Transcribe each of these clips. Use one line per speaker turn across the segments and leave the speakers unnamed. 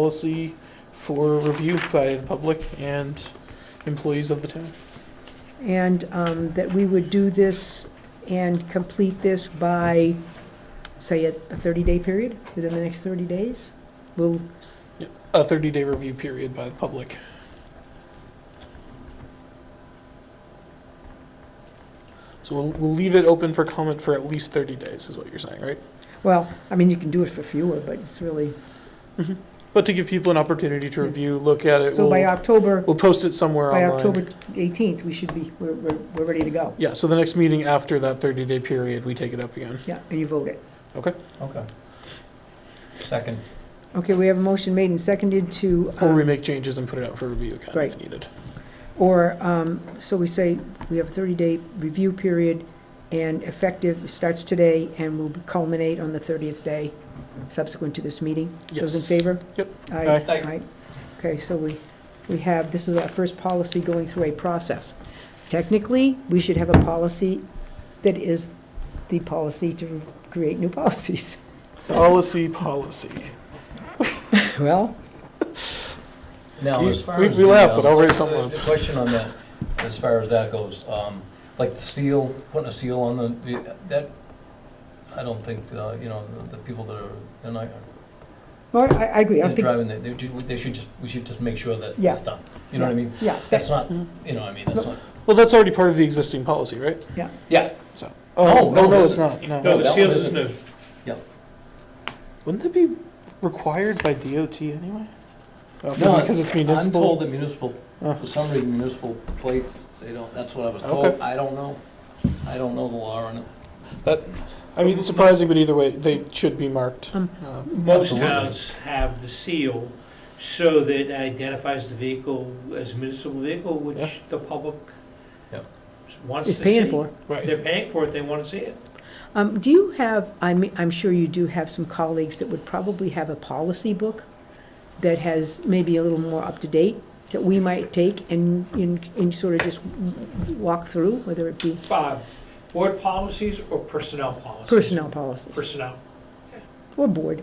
policy for review by the public and employees of the town.
And um, that we would do this and complete this by, say, a 30-day period, within the next 30 days? We'll,
A 30-day review period by the public. So we'll, we'll leave it open for comment for at least 30 days, is what you're saying, right?
well, I mean, you can do it for fewer, but it's really,
But to give people an opportunity to review, look at it,
so by
we'll,
October,
we'll post it somewhere
by October
online.
18th, we should be, we're, we're we're ready to go.
Yeah, so the next meeting after that 30-day period, we take it up again.
Yeah, and you vote it.
Okay. Second.
Okay, we have a motion made and seconded to,
Or we
um,
make changes and put it out for review again if
Right.
needed.
or, um, so we say, we have a 30-day review period, and effective, starts today, and will culminate on the 30th day subsequent to this meeting. Those in
Yes.
favor?
Yep.
Aye.
Aye.
Aye.
Aye. Okay, so we, we have, this is our first policy going through a process. Technically, we should have a policy that is the policy to create new policies.
Policy, policy.
Well,
Now,
You-
as far
we-
as.
we
the,
laugh,
um,
but I'll raise
the-
something.
The question on that, as far as that goes, um, like the seal, putting a seal on the- the, that, I don't think, uh, you know, the- the people that are, they're not,
well, I, I agree, I
they're
don't think,
driving, they, they do- they should just, we should just make sure that
Yeah.
it's done. You know what I mean?
yeah,
That's not,
Mhm.
you know, what I mean, that's not,
Well, that's already part of the existing policy, right?
yeah,
So.
Oh,
no,
no,
no,
it
it's not,
isn't.
no.
No,
No,
that
the seal
one
is
isn't.
new.
Wouldn't that be required by DOT anyway? Uh,
No,
because it's
I'm told
municipal.
that municipal,
Oh.
for some reason municipal plates, they don't, that's what I was
Okay.
told, I don't know. I don't know the law on it.
I mean, surprising, but either way, they should be marked.
Um,
Uh,
Most
Absolutely.
towns have the seal so that it identifies the vehicle as municipal vehicle,
Yeah.
which the public
Yeah.
wants to
it's
see.
paying for.
They're
Right.
paying for it, they want to see it.
Um, do you have, I'm, I'm sure you do have some colleagues that would probably have a policy book that has maybe a little more up to date that we might take and, and, and sort of just walk through, whether it be
Bob, board policies or personnel policies?
personnel policies
Personnel.
or board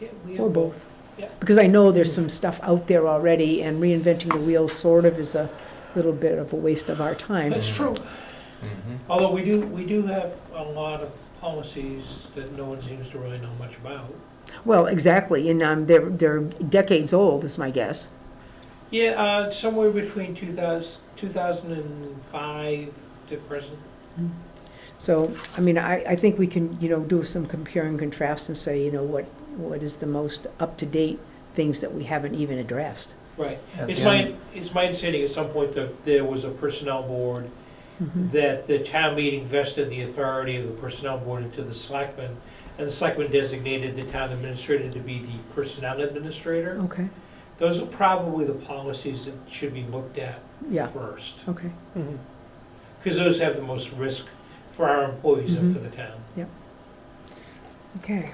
Yeah, we have
or both?
Yeah.
Because I know there's some stuff out there already and reinventing the wheel sort of is a little bit of a waste of our time.
That's true,
Mm-hmm.
although we do, we do have a lot of policies that no one seems to really know much about.
Well, exactly, and, um, they're, they're decades old is my guess.
Yeah, uh, somewhere between 2000 2005 to present.
So, I mean, I, I think we can, you know, do some compare and contrast and say, you know, what, what is the most up-to-date things that we haven't even addressed?
Right.
At
It's
the
my,
end-
it's my understanding at some point that there was a personnel board,
Hmm.
that the town meeting vested the authority of the personnel board into the selectmen, and the selectmen designated the town administrator to be the personnel
Oh.
administrator.
Okay,
Those are probably the policies that should be looked at
yeah,
first,
okay,
Mhm.
because those have the most risk for our employees
Mm-hmm.
and for the town.
okay.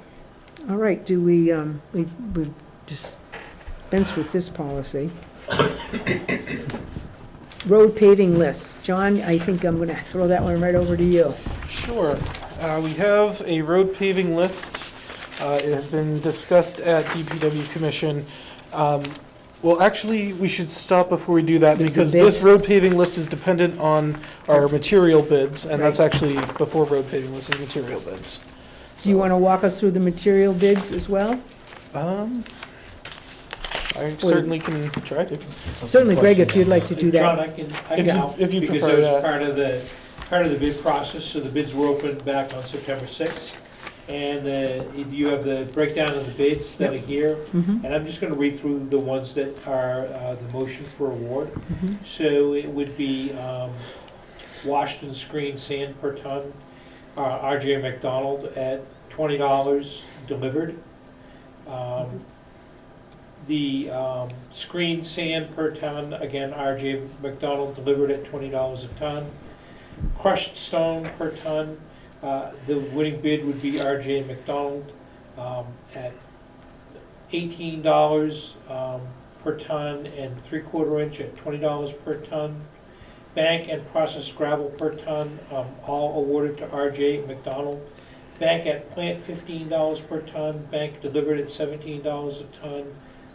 All right, do we, um, we've, we've dispensed with this policy. Road paving list. John, I think I'm gonna throw that one right over to you.
Sure. Uh, we have a road paving list. Uh, it has been discussed at DPW Commission. Um, well, actually, we should stop before we do that
The- the
because this
bid.
road paving list is dependent on our material bids, and that's
Right.
actually before road paving list is material bids.
Do you wanna walk us through the material bids as well?
Um, I certainly can try to.
Certainly, Greg, if you'd like to do
John,
that.
I can, I
If
can
you-
help.
if you
because
prefer
that
that.
was part of the, part of the bid process, so the bids were opened back on September sixth. And uh, you have the breakdown of the bids that are here,
Mhm,
and I'm just gonna read through the ones that are uh, the motion for award.
mhm.
So it would be um, Washington Screen Sand per ton, uh, RJ McDonald at twenty dollars delivered. Um, The um, screen sand per ton, again, RJ McDonald delivered at twenty dollars a ton. Crushed stone per ton, uh, the winning bid would be RJ McDonald um, at eighteen dollars um, per ton and three-quarter inch at twenty dollars per ton. Bank and processed gravel per ton, um, all awarded to RJ McDonald. Bank at plant fifteen dollars per ton, bank delivered at seventeen dollars a ton.